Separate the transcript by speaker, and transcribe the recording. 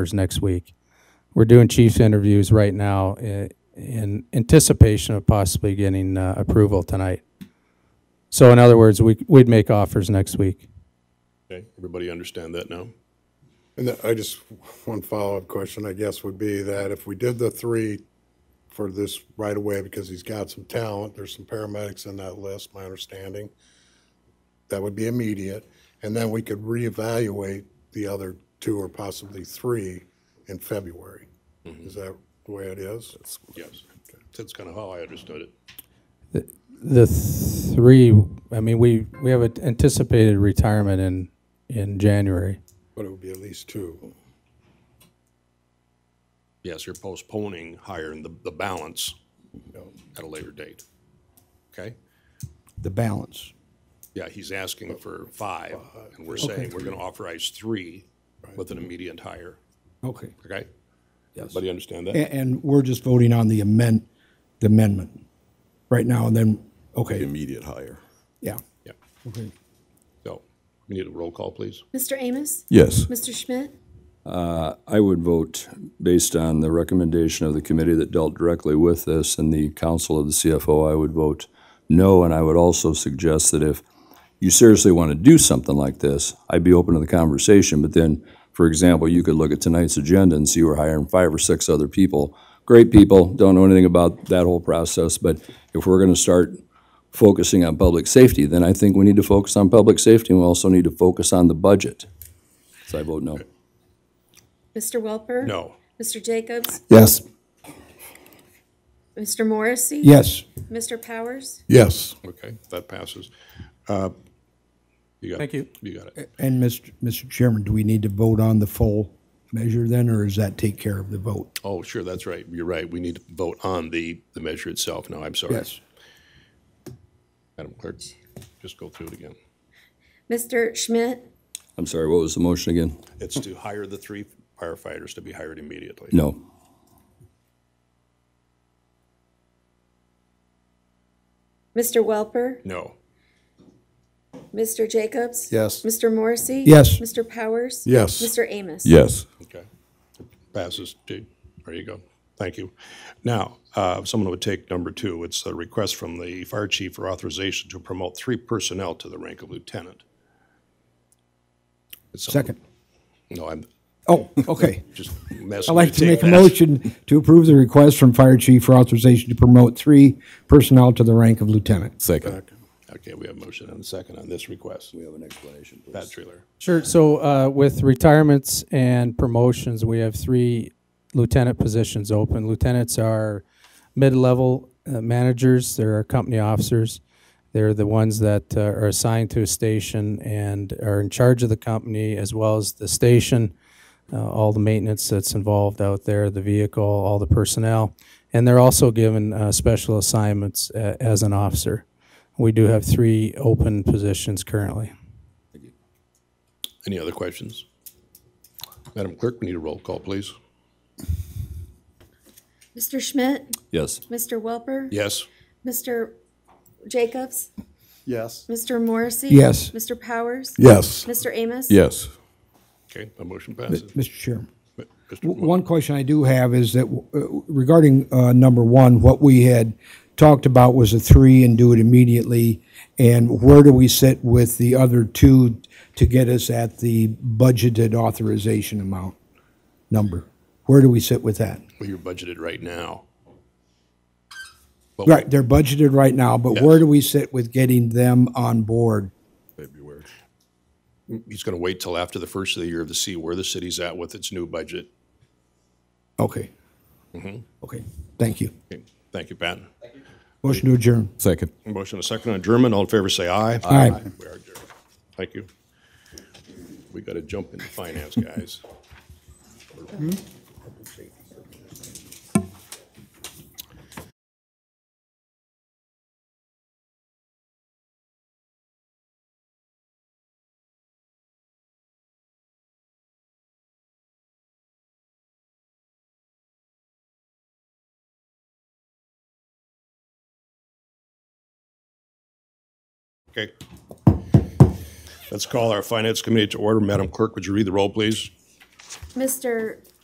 Speaker 1: next week. We're doing chief's interviews right now i- in anticipation of possibly getting uh, approval tonight. So in other words, we, we'd make offers next week.
Speaker 2: Okay, everybody understand that now?
Speaker 3: And that- I just, one follow-up question, I guess, would be that if we did the three for this right away, because he's got some talent, there's some paramedics in that list, my understanding, that would be immediate, and then we could reevaluate the other two or possibly three in February. Is that the way it is?
Speaker 2: Yes. That's kind of how I understood it.
Speaker 1: The three, I mean, we, we have an anticipated retirement in, in January.
Speaker 3: But it would be at least two.
Speaker 2: Yes, you're postponing hiring the, the balance you know, at a later date. Okay?
Speaker 4: the balance.
Speaker 2: Yeah, he's asking for five, and we're saying we're going to authorize three with an immediate hire,
Speaker 4: Okay.
Speaker 2: okay? Everybody understand that?
Speaker 4: And, we're just voting on the amend, the amendment right now and then, okay,
Speaker 5: immediate hire.
Speaker 4: yeah.
Speaker 2: Yeah.
Speaker 4: Okay.
Speaker 2: So, we need a roll call, please.
Speaker 6: Mr. Amos?
Speaker 5: Yes.
Speaker 6: Mr. Schmidt?
Speaker 7: I would vote based on the recommendation of the committee that dealt directly with this and the counsel of the CFO, I would vote no. And I would also suggest that if you seriously want to do something like this, I'd be open to the conversation. But then, for example, you could look at tonight's agenda and see we're hiring five or six other people. Great people, don't know anything about that whole process, but if we're going to start focusing on public safety, then I think we need to focus on public safety and we also need to focus on the budget. So I vote no.
Speaker 6: Mr. Welper?
Speaker 2: No.
Speaker 6: Mr. Jacobs?
Speaker 4: Yes.
Speaker 6: Mr. Morrissey?
Speaker 4: Yes.
Speaker 6: Mr. Powers?
Speaker 3: Yes.
Speaker 2: Okay, that passes. Uh, You got it.
Speaker 1: Thank you.
Speaker 2: You got it.
Speaker 4: And Mr. Mr. Chairman, do we need to vote on the full measure then, or does that take care of the vote?
Speaker 2: Oh, sure, that's right. You're right. We need to vote on the, the measure itself. No, I'm sorry. Madam Clerk, just go through it again.
Speaker 6: Mr. Schmidt?
Speaker 7: I'm sorry, what was the motion again?
Speaker 2: It's to hire the three firefighters to be hired immediately.
Speaker 7: No.
Speaker 6: Mr. Welper?
Speaker 2: No.
Speaker 6: Mr. Jacobs?
Speaker 3: Yes.
Speaker 6: Mr. Morrissey?
Speaker 4: Yes.
Speaker 6: Mr. Powers?
Speaker 3: Yes.
Speaker 6: Mr. Amos?
Speaker 5: Yes.
Speaker 2: Okay. Passes, too. There you go. Thank you. Now, uh, someone would take number two. It's a request from the fire chief for authorization to promote three personnel to the rank of lieutenant. It's some-
Speaker 4: Second.
Speaker 2: No, I'm
Speaker 4: Oh, okay.
Speaker 2: just messing.
Speaker 4: I'd like
Speaker 2: with
Speaker 4: to
Speaker 2: you.
Speaker 4: make a motion to approve the request from Fire Chief for authorization to promote three personnel to the rank of lieutenant.
Speaker 5: Second.
Speaker 2: Okay, we have a motion and a second on this request. We have an explanation, please. Pat Treeler.
Speaker 1: Sure. So uh, with retirements and promotions, we have three lieutenant positions open. Lieutenants are mid-level uh, managers. They're our company officers. They're the ones that uh, are assigned to a station and are in charge of the company as well as the station, uh, all the maintenance that's involved out there, the vehicle, all the personnel. And they're also given uh, special assignments uh, as an officer. We do have three open positions currently.
Speaker 2: Any other questions? Madam Clerk, we need a roll call, please.
Speaker 6: Mr. Schmidt?
Speaker 7: Yes.
Speaker 6: Mr. Welper?
Speaker 2: Yes?
Speaker 6: Mr. Jacobs?
Speaker 3: Yes.
Speaker 6: Mr. Morrissey?
Speaker 4: Yes.
Speaker 6: Mr. Powers?
Speaker 3: Yes.
Speaker 6: Mr. Amos?
Speaker 5: Yes.
Speaker 2: Okay, the motion passes.
Speaker 4: Mr. Chairman.
Speaker 2: Mr.
Speaker 4: W- One question I do have is that uh, regarding uh, number one, what we had talked about was a three and do it immediately. And where do we sit with the other two to get us at the budgeted authorization amount number? Where do we sit with that?
Speaker 2: Well, you're budgeted right now.
Speaker 4: Right, they're budgeted right now, but where do we sit with getting them on board?
Speaker 2: He's going to wait till after the first of the year to see where the city's at with its new budget.
Speaker 4: Okay. Okay, thank you.
Speaker 2: Okay, Thank you, Pat.
Speaker 4: Motion to adjourn.
Speaker 5: Second.
Speaker 2: Motion a second on adjournment. All in favor, say aye.
Speaker 4: Aye.
Speaker 2: We are adjourned. Thank you. We got to jump into finance, guys. Okay. Let's call our finance committee to order. Madam Clerk, would you read the roll, please?
Speaker 6: Mr.